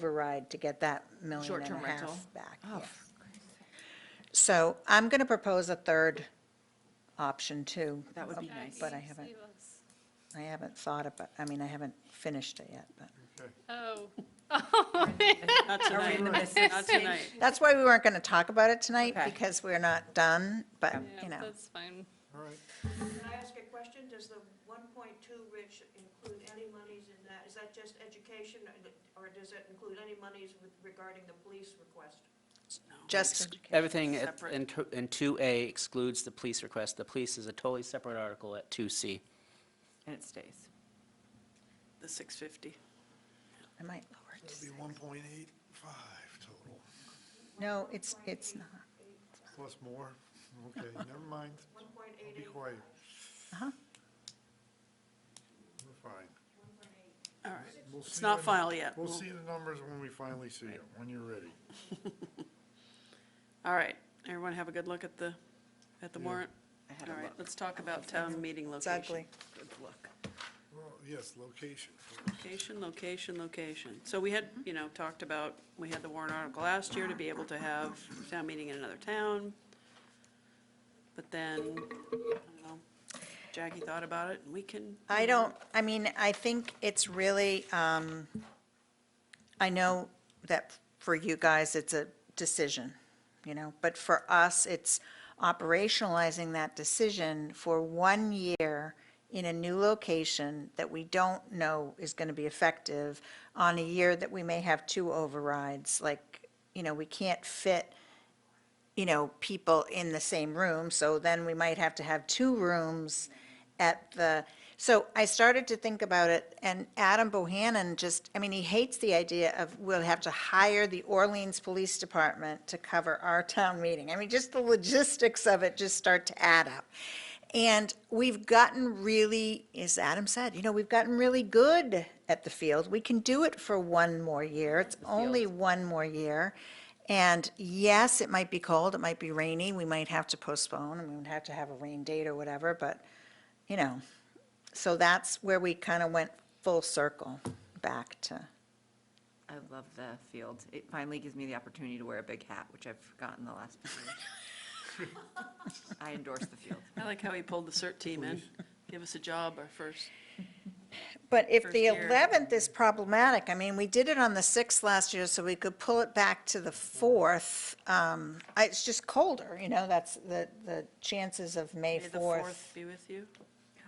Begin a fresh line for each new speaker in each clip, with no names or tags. override to get that million and
Short-term
a
rental.
half back.
Oh,
yes. So I'm going to propose a third option too. Um,
That would be nice.
But I haven't, I haven't thought about, I mean, I haven't finished it yet, but.
Oh,
Not tonight. Not tonight.
That's why we weren't going to talk about it tonight,
Okay.
because we're not done, but, you
yeah,
know.
that's fine.
All right.
Can I ask a question? Does the one point two, Rich, include any monies in that? Is that just education, or does it include any monies with- regarding the police request?
Just,
Everything at- in to- in 2A excludes the police request. The police is a totally separate article at 2C.
And it stays.
The 650.
I might lower it.
That'd be 1.85 total,
No, it's, it's not.
plus more. Okay, never mind.
One point
I'll
eight
be
eight?
quiet.
Uh-huh.
We're fine.
All right.
We'll
It's
see
not
when-
final yet.
We'll
We'll-
see the numbers when we finally see it, when you're ready.
All right. Everyone have a good look at the, at the warrant?
I had a
All right,
look.
let's talk about town meeting location.
ugly.
Good look.
Well, yes, location.
Uh-huh. Location, location, location. So we
Mm-hmm.
had, you know, talked about, we had the warrant article last year to be able to have town meeting in another town. But then, I don't know, Jackie thought about it, and we can.
I don't, I mean, I think it's really, um, I know that for you guys, it's a decision, you know, but for us, it's operationalizing that decision for one year in a new location that we don't know is going to be effective on a year that we may have two overrides. Like, you know, we can't fit you know, people in the same room, so then we might have to have two rooms at the, so I started to think about it, and Adam Bohannon just, I mean, he hates the idea of we'll have to hire the Orleans Police Department to cover our town meeting. I mean, just the logistics of it just start to add up. And we've gotten really, as Adam said, you know, we've gotten really good at the field. We can do it for one more year. It's only one more year. And yes, it might be cold, it might be rainy, we might have to postpone, and we would have to have a rain date or whatever, but, you know. So that's where we kind of went full circle back to,
I love the field. It finally gives me the opportunity to wear a big hat, which I've forgotten the last. few years. I endorse the field.
I like how he pulled the CERT team in. Give us a job, our first.
But if the
First year.
11th is problematic, I mean, we did it on the 6th last year, so we could pull it back to the 4th. Um, I- It's just colder, you know, that's the, the chances of May
May the
4th.
Be with you.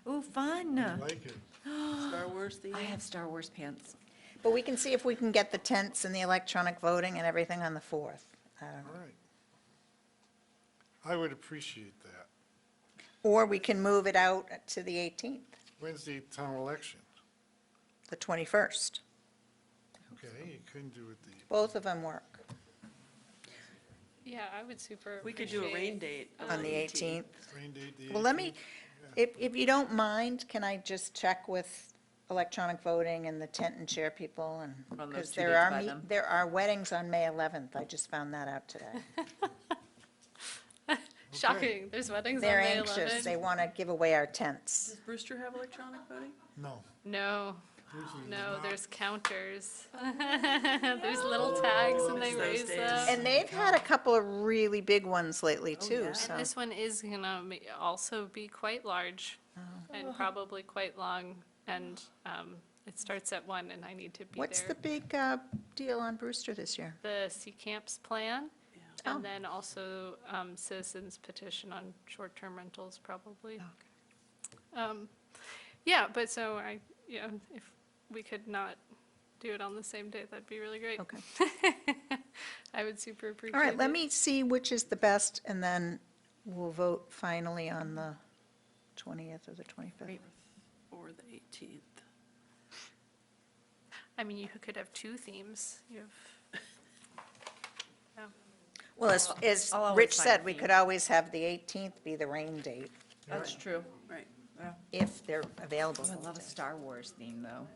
Ooh, fun.
Like it.
Star Wars theme.
I have Star Wars pants.
But we can see if we can get the tents and the electronic voting and everything on the 4th. I don't know.
All right. I would appreciate that.
Or we can move it out to the 18th,
Wednesday, town election.
the 21st.
Okay, you couldn't do it the,
Both of them work
Yeah, I would super
We could do a rain
appreciate-
date. of
on the 18th.
rain date the 18th.
Well, let me, if, if you don't mind, can I just check with electronic voting and the tent and chair people and?
On those
Because
two
there
dates
are,
by
me-
them.
there are weddings on May 11th. I just found that out today.
Shocking, there's weddings on
They're
May
anxious. They
11.
want to give away our tents.
Does Brewster have electronic voting?
No.
No,
usually it's
no,
not.
there's counters. There's little tags and they
It's those
raise
days.
them.
And they've had a couple of really big ones lately too,
yeah.
so.
And this one is gonna ma- also be quite large
Oh.
and probably quite long. And um, it starts at one and I need to be
What's the
there.
big uh, deal on Brewster this year?
The Sea Camps Plan
Oh.
and then also um, citizens petition on short-term rentals probably. Um, Yeah, but so I, yeah, if we could not do it on the same day, that'd be really great.
Okay.
I would super appreciate it.
All right, let me see which is the best, and then we'll vote finally on the 20th or the 25th.
Or the 18th?
I mean, you could have two themes. You have,
Well, as, as
I'll always
Rich
find a
said, we
theme.
could always have the 18th be the rain date,
That's true.
Right.
if they're available.
Oh, I love a Star Wars theme, though.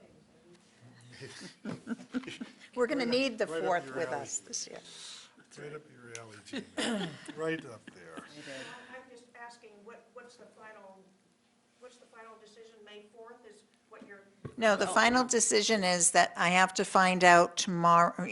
We're going to need the
right up
4th
your
with
alley.
us this year.
Right up your alley, Gina. Right up there.
I- I'm just asking, what, what's the final, what's the final decision? May fourth is what you're?
Oh.
No, the final decision is that I have to find out tomorrow,